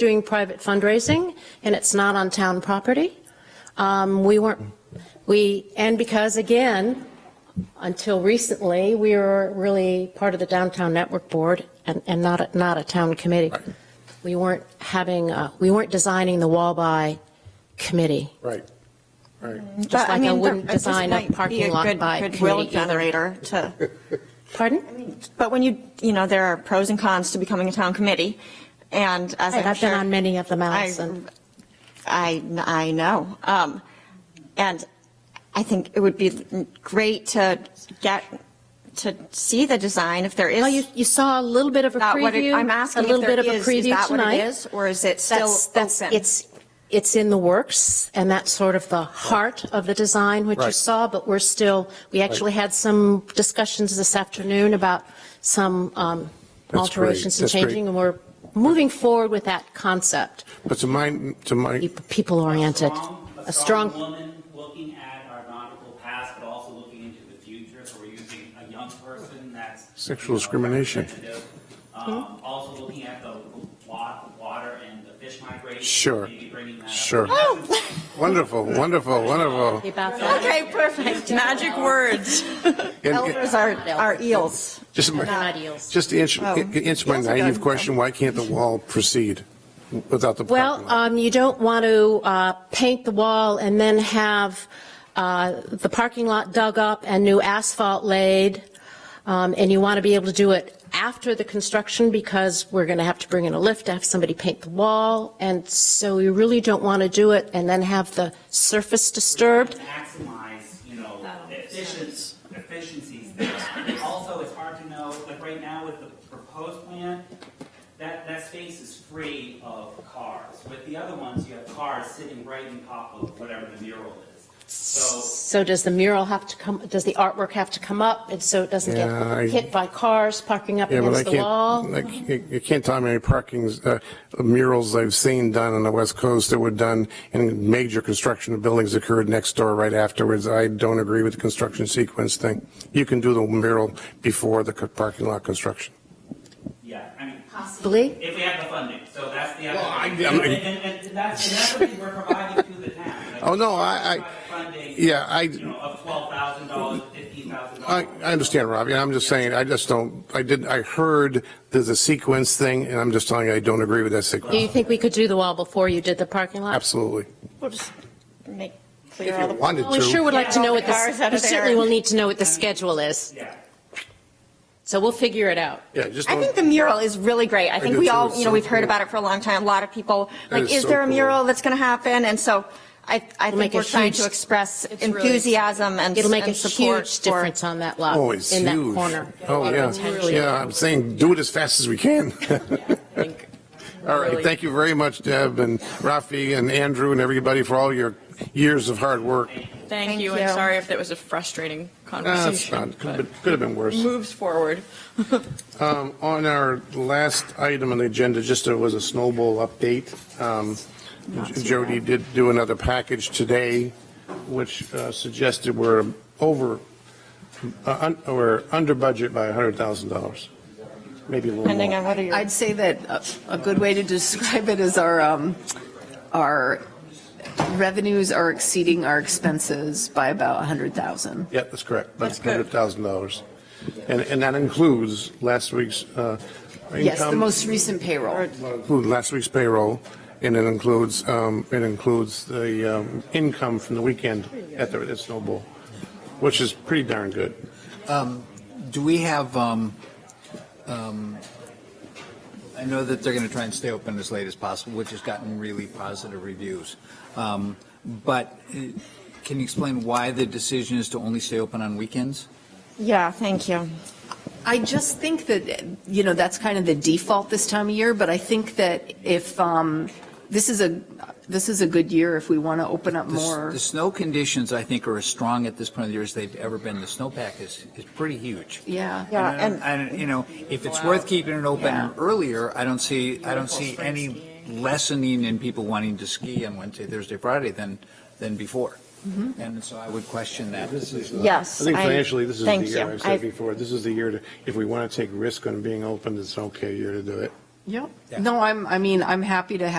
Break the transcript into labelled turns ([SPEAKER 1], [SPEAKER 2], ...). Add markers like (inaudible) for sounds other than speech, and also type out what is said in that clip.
[SPEAKER 1] doing private fundraising, and it's not on town property. Um, We weren't, we, and because, again, until recently, we were really part of the Downtown Network Board and, and not, a- not a town committee. We weren't having, uh, we weren't designing the Wabai committee,
[SPEAKER 2] Right, right.
[SPEAKER 1] just like I wouldn't design a parking lot by
[SPEAKER 3] Goodwill
[SPEAKER 1] committee either.
[SPEAKER 3] generator to,
[SPEAKER 1] Pardon?
[SPEAKER 3] but when you, you know, there are pros and cons to becoming a town committee, and as I'm
[SPEAKER 1] I've
[SPEAKER 3] sure.
[SPEAKER 1] been on many of them,
[SPEAKER 3] I-
[SPEAKER 1] Allison.
[SPEAKER 3] I, I know. Um, And I think it would be great to get, to see the design if there is.
[SPEAKER 1] Oh, you, you saw a little bit of a
[SPEAKER 3] not what it-
[SPEAKER 1] preview.
[SPEAKER 3] I'm asking if
[SPEAKER 1] little bit
[SPEAKER 3] there
[SPEAKER 1] of a
[SPEAKER 3] is, is
[SPEAKER 1] preview
[SPEAKER 3] that what
[SPEAKER 1] tonight.
[SPEAKER 3] it is? Or is it still
[SPEAKER 1] That's, that's,
[SPEAKER 3] open?
[SPEAKER 1] it's, it's in the works, and that's sort of the heart of the design, which you
[SPEAKER 2] Right.
[SPEAKER 1] saw, but we're still, we actually had some discussions this afternoon about some um,
[SPEAKER 2] That's
[SPEAKER 1] alterations
[SPEAKER 2] great.
[SPEAKER 1] and
[SPEAKER 2] That's great.
[SPEAKER 1] changing, and we're moving forward with that concept,
[SPEAKER 2] But to my, to my,
[SPEAKER 1] people-oriented.
[SPEAKER 4] A strong woman looking at our nautical past, but also looking into the future. So we're using a young person that's.
[SPEAKER 2] Sexual
[SPEAKER 4] you know,
[SPEAKER 2] discrimination.
[SPEAKER 4] representative. Um, also looking at the wa- water and the fish migration.
[SPEAKER 2] Sure.
[SPEAKER 4] Maybe bringing that up.
[SPEAKER 2] sure.
[SPEAKER 1] Oh.
[SPEAKER 2] (laughs) Wonderful,
[SPEAKER 1] (laughs)
[SPEAKER 2] wonderful, wonderful.
[SPEAKER 1] About that.
[SPEAKER 3] Okay, perfect. Magic words.
[SPEAKER 2] And-
[SPEAKER 3] Elders are, are eels.
[SPEAKER 2] Just my-
[SPEAKER 1] They're not eels.
[SPEAKER 2] Just to answer,
[SPEAKER 3] Oh.
[SPEAKER 2] answer my
[SPEAKER 3] Yes, I
[SPEAKER 2] naive
[SPEAKER 3] got it.
[SPEAKER 2] question, why can't the wall proceed without the parking
[SPEAKER 1] Well,
[SPEAKER 2] lot?
[SPEAKER 1] um, you don't want to uh, paint the wall and then have uh, the parking lot dug up and new asphalt laid, Um, and you want to be able to do it after the construction because we're going to have to bring in a lift, to have somebody paint the wall, and so you really don't want to do it and then have the surface disturbed.
[SPEAKER 4] Maximize, you know, efficiencies, efficiencies there. Also, it's hard to know, like right now with the proposed plan, that, that space is free of cars. With the other ones, you have cars sitting right on top of whatever the mural is. So
[SPEAKER 1] So does the mural have to come, does the artwork have to come up, and so it doesn't get
[SPEAKER 2] Yeah, I-
[SPEAKER 1] hit by cars parking up
[SPEAKER 2] Yeah, but I
[SPEAKER 1] against the wall?
[SPEAKER 2] can't, I c- you can't tell me any parkings, uh, murals I've seen done on the West Coast that were done in major construction of buildings occurred next door right afterwards. I don't agree with the construction sequence thing. You can do the mural before the co- parking lot construction.
[SPEAKER 4] Yeah, I mean,
[SPEAKER 1] Possibly.
[SPEAKER 4] if we have the funding, so that's the other.
[SPEAKER 2] Well, I-
[SPEAKER 4] And,
[SPEAKER 2] I mean-
[SPEAKER 4] and, and that's, and that's what we're providing to the town. like,
[SPEAKER 2] Oh, no, I- I-
[SPEAKER 4] private funding,
[SPEAKER 2] yeah, I-
[SPEAKER 4] You know, of twelve thousand dollars, fifteen thousand
[SPEAKER 2] I,
[SPEAKER 4] dollars.
[SPEAKER 2] I understand, Robbie. I'm just saying, I just don't, I didn't, I heard there's a sequence thing, and I'm just telling you, I don't agree with that
[SPEAKER 1] Do you
[SPEAKER 2] sequence.
[SPEAKER 1] think we could do the wall before you did the parking lot?
[SPEAKER 2] Absolutely.
[SPEAKER 3] We'll just make
[SPEAKER 2] If
[SPEAKER 3] clear all
[SPEAKER 2] you
[SPEAKER 3] the.
[SPEAKER 2] wanted
[SPEAKER 1] Well, We sure
[SPEAKER 2] to.
[SPEAKER 1] would like to know what
[SPEAKER 3] Cars
[SPEAKER 1] the,
[SPEAKER 3] out
[SPEAKER 1] we
[SPEAKER 3] of there.
[SPEAKER 1] certainly will need to know what the schedule is,
[SPEAKER 4] Yeah.
[SPEAKER 1] so we'll figure it out.
[SPEAKER 2] Yeah, just
[SPEAKER 3] I think the
[SPEAKER 2] don't,
[SPEAKER 3] mural is really great. I think
[SPEAKER 2] do
[SPEAKER 3] we
[SPEAKER 2] too.
[SPEAKER 3] all,
[SPEAKER 2] It's
[SPEAKER 3] you know,
[SPEAKER 2] so
[SPEAKER 3] we've heard
[SPEAKER 2] cool.
[SPEAKER 3] about it for a long time. A lot of people,
[SPEAKER 2] That
[SPEAKER 3] like,
[SPEAKER 2] is
[SPEAKER 3] is
[SPEAKER 2] so
[SPEAKER 3] there a
[SPEAKER 2] cool.
[SPEAKER 3] mural that's going to happen? And so I, I
[SPEAKER 1] make
[SPEAKER 3] think
[SPEAKER 1] a
[SPEAKER 3] we're trying to
[SPEAKER 1] huge-
[SPEAKER 3] express
[SPEAKER 1] It's really-
[SPEAKER 3] enthusiasm and
[SPEAKER 1] It'll make a
[SPEAKER 3] and support
[SPEAKER 1] huge
[SPEAKER 3] for-
[SPEAKER 1] difference on that lot,
[SPEAKER 2] oh, it's
[SPEAKER 1] in that
[SPEAKER 2] huge.
[SPEAKER 1] corner.
[SPEAKER 2] Oh, yeah.
[SPEAKER 1] Potentially.
[SPEAKER 2] Yeah, I'm saying, do it as fast as we can. (laughs)
[SPEAKER 1] I think.
[SPEAKER 2] All right,
[SPEAKER 1] Really.
[SPEAKER 2] thank you very much, Deb and Rafi and Andrew and everybody for all your years of hard work.
[SPEAKER 5] Thank
[SPEAKER 3] Thank
[SPEAKER 5] you, and
[SPEAKER 3] you.
[SPEAKER 5] sorry if that was a frustrating
[SPEAKER 2] Ah, It's not,
[SPEAKER 5] conversation.
[SPEAKER 2] could have
[SPEAKER 5] but
[SPEAKER 2] been- could have been worse.
[SPEAKER 5] Moves forward.
[SPEAKER 2] Um, On our last item on the agenda, just there was a snowball update. Um, Jody did do another package today, which uh, suggested we're over, uh, un- we're under budget by $100,000, maybe a little
[SPEAKER 3] Depending
[SPEAKER 2] more.
[SPEAKER 3] on whether you're.
[SPEAKER 6] I'd say that a- a good way to describe it is our, um, our revenues are exceeding our expenses by about 100,000.
[SPEAKER 2] Yeah, that's correct.
[SPEAKER 5] That's good.
[SPEAKER 2] $100,000. And, and that includes last week's uh, income.
[SPEAKER 6] Yes, the most recent payroll.
[SPEAKER 2] include last week's payroll, and it includes, um, it includes the um, income from the weekend at the, at Snowball, which is pretty darn good.
[SPEAKER 7] Do we have, um, um, I know that they're going to try and stay open as late as possible, which has gotten really positive reviews. Um, But uh, can you explain why the decision is to only stay open on weekends?
[SPEAKER 3] Yeah, thank you.
[SPEAKER 6] I just think that, you know, that's kind of the default this time of year, but I think that if, um, this is a, this is a good year if we want to open up
[SPEAKER 7] The s-
[SPEAKER 6] more.
[SPEAKER 7] The snow conditions, I think, are as strong at this point of the year as they've ever been. The snowpack is, is pretty huge.
[SPEAKER 6] Yeah.
[SPEAKER 3] Yeah,
[SPEAKER 7] I don't-
[SPEAKER 3] and-
[SPEAKER 7] I don't- uh, you know, if it's worth keeping it
[SPEAKER 6] Yeah.
[SPEAKER 7] open earlier, I don't see, I don't see any lessening in people wanting to ski on Wednesday, Thursday, Friday than, than before. And so I would question that.
[SPEAKER 3] Mm-hmm. Yes.
[SPEAKER 2] I think financially, this is the
[SPEAKER 3] thank
[SPEAKER 2] year,
[SPEAKER 3] you.
[SPEAKER 2] I've said
[SPEAKER 3] I've-
[SPEAKER 2] before, this is the year to, if we want to take risk on being open, it's okay year to do it.
[SPEAKER 6] Yep.
[SPEAKER 7] Yeah.
[SPEAKER 6] No, I'm, I mean, I'm happy to have